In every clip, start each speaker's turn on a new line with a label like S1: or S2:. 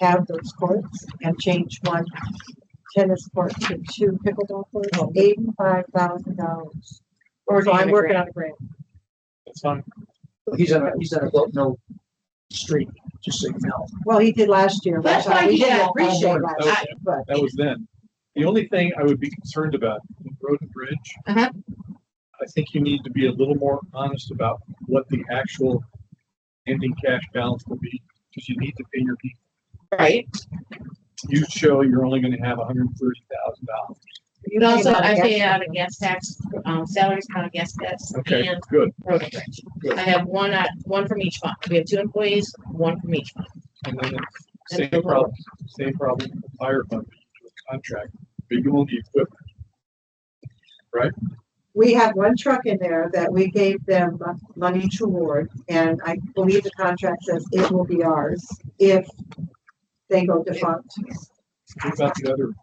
S1: have those courts and change one tennis court to two pickleball courts, eighty-five thousand dollars.
S2: We're
S1: So I'm
S2: already
S1: working
S2: Oh. working on.
S1: on a grant.
S2: It's fine.
S3: He's on, a- he's on a boat, no street, just so you know.
S1: Well, he did last year.
S2: That's
S1: which I-
S2: why
S1: we
S2: he did. Oh. I
S1: all
S2: appreciate
S1: did
S2: that.
S1: last year, But
S4: That was then. The only thing I would be concerned about, with road and bridge.
S2: Uh-huh.
S4: I think you need to be a little more honest about what the actual ending cash balance will be, because you need to pay your people.
S2: Right.
S4: You show you're only gonna have hundred and thirty thousand dollars.
S1: you
S2: But
S1: paid
S2: also
S1: out
S2: I
S1: the
S2: pay
S1: extra.
S2: out a gas tax, um, salaries, kind of gas tax
S4: Okay,
S2: and
S4: good.
S2: road and bridge. I have one, at- one from each fund. We have two employees, one from each fund.
S4: And then it's
S2: And
S4: same
S2: the road.
S4: problem, same problem with the fire fund, you do a contract, but you own the equipment.
S1: We had one truck in there that we gave them money toward, and I believe the contract says it will be ours if they go defunct.
S4: What about the other?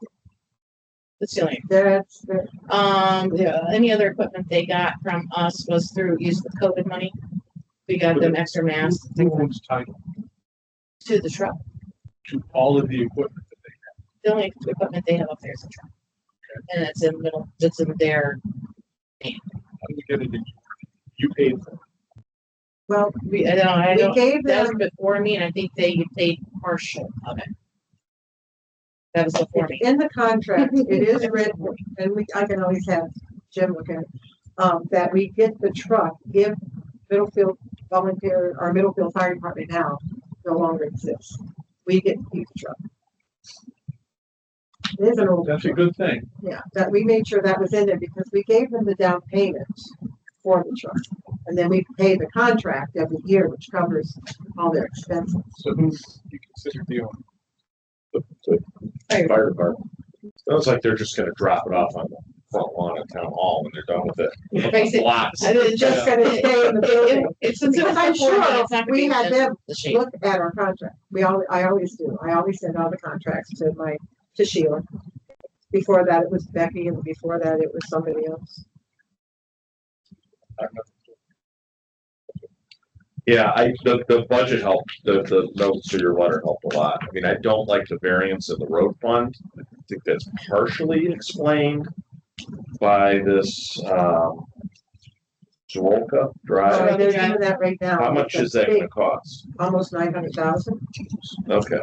S2: That's the only
S1: That's, the-
S2: Um, the- any other equipment they got from us was through use of COVID money. We got them extra masks
S4: Who owns title
S2: to the truck.
S4: to all of the equipment that they,
S2: The only equipment they have up there is a truck. And it's in middle, it's in their,
S4: how do we get it in? You paid for it.
S1: well,
S2: we, I don't, I
S1: we
S2: don't,
S1: gave
S2: that
S1: them,
S2: was before me and I think they paid partial of it. That was before me.
S1: in the contract, it is written, and we, I can always have Jim look at it, um, that we get the truck if Middlefield volunteer, or Middlefield Fire Department now no longer exists. We get to keep the truck. It is an old
S4: That's a good thing.
S1: Yeah, that we made sure that was in there because we gave them the down payment for the truck. And then we pay the contract every year, which covers all their expenses.
S4: So who you consider the owner?
S2: Fire-
S5: fire department. Sounds like they're just gonna drop it off on the front lawn of town hall when they're done with
S2: Basically,
S5: it. Lots.
S2: I was
S1: Just gonna stay in the building.
S2: It's, since it was
S1: Because I'm
S2: before me, it's
S1: sure
S2: not gonna
S1: we
S2: be
S1: had
S2: the-
S1: them
S2: the shape.
S1: look at our contract. We all, I always do. I always send all the contracts to my, to Sheila. Before that, it was Becky and before that, it was somebody else.
S4: I don't know.
S5: Yeah, I, the, the budget helped, the, the notes to your letter helped a lot. I mean, I don't like the variance in the road fund. I think that's partially explained by this, um, Zorolka
S2: Right.
S1: So
S5: Drive.
S1: they're doing that right now.
S5: How much is that gonna cost?
S1: Almost nine hundred thousand.
S5: Okay,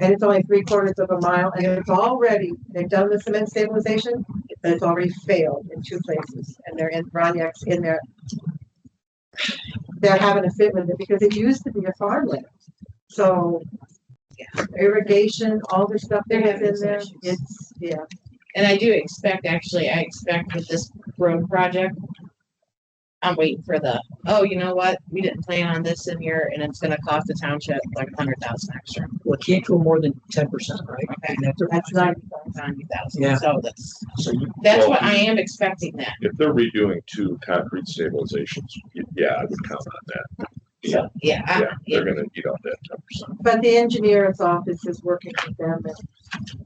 S1: and it's only three quarters of a mile, and it's already, they've done the cement stabilization, but it's already failed in two places, and they're in, Roniak's in there. They're having a fit with it because it used to be a farmland, so irrigation, all the stuff that
S2: They're
S1: is
S2: having
S1: in there,
S2: some issues.
S1: it's, yeah.
S2: And I do expect, actually, I expect with this road project. I'm waiting for the, oh, you know what, we didn't plan on this in here and it's gonna cost the township like a hundred thousand extra,
S3: Well, it can't go more than ten percent, right?
S2: Okay.
S3: And that's a-
S1: That's not,
S2: ninety
S3: Yeah.
S2: thousand, so that's,
S3: So you,
S2: that's
S5: Well,
S2: what I am expecting that.
S5: if they're redoing two concrete stabilizations, y- yeah, I would count on that.
S2: So, yeah, I-
S5: Yeah,
S2: yeah,
S5: they're gonna eat off that ten percent.
S1: but the engineer's office is working with them. and-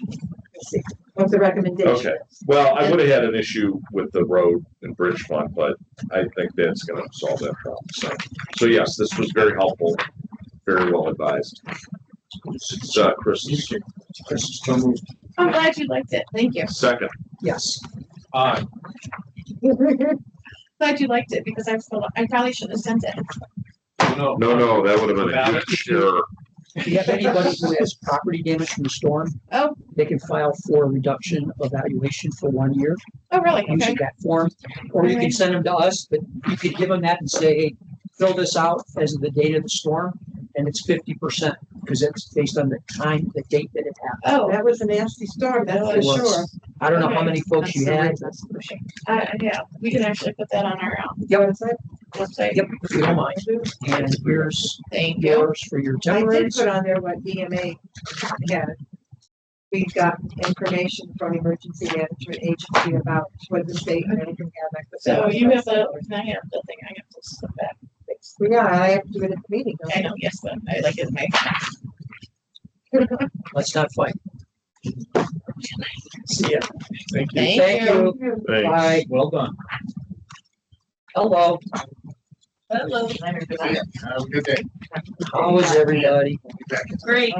S1: Let's see, What's the recommendation?
S5: Okay. Well, I
S2: And-
S5: would have had an issue with the road and bridge fund, but I think that's gonna solve that problem. So, so yes, this was very helpful, very well advised. It's, uh, Chris's
S3: Chris, so moved.
S2: I'm glad you liked it, thank you,
S5: second.
S3: yes,
S4: Aye.
S2: glad you liked it, because I still, I probably shouldn't have sent it.
S4: no.
S5: No, no, that would have been a huge error.
S3: if you have anybody who has property damage from the storm,
S2: Oh,
S3: they can file for a reduction of valuation for one year.
S2: oh, really,
S3: using
S2: okay,
S3: that form, or you can
S2: Alright.
S3: send them to us, but you could give them that and say, hey, fill this out as of the date of the storm, and it's fifty percent, because it's based on the time, the date that it happened.
S2: oh,
S1: That was a nasty storm, that's for
S3: It was.
S1: sure.
S3: I don't know how
S2: Okay.
S3: many folks you
S2: That's
S3: had.
S2: uh, yeah, we can actually put that on our um,
S1: You know what I'm saying?
S2: website,
S3: Yep, if you don't mind, and here's
S2: thank you.
S3: yours for
S1: I
S3: your
S1: did
S3: temporaries.
S1: put on there what EMA had. We've got information from Emergency Management Agency about what the state and everything have. like the-
S2: So Oh, you have the, I have the thing, I have to step back.
S1: Well, Yeah, I have to do it at the meeting. don't
S2: I
S1: I?
S2: know, yes, but I like it, my,
S3: Let's not fight. See ya.
S4: Thank you.
S2: thank you.
S5: Thanks.
S3: Bye.
S4: Well done.
S3: Hello.
S2: Hello.
S6: Have a good day.
S3: How is everybody?
S2: Great.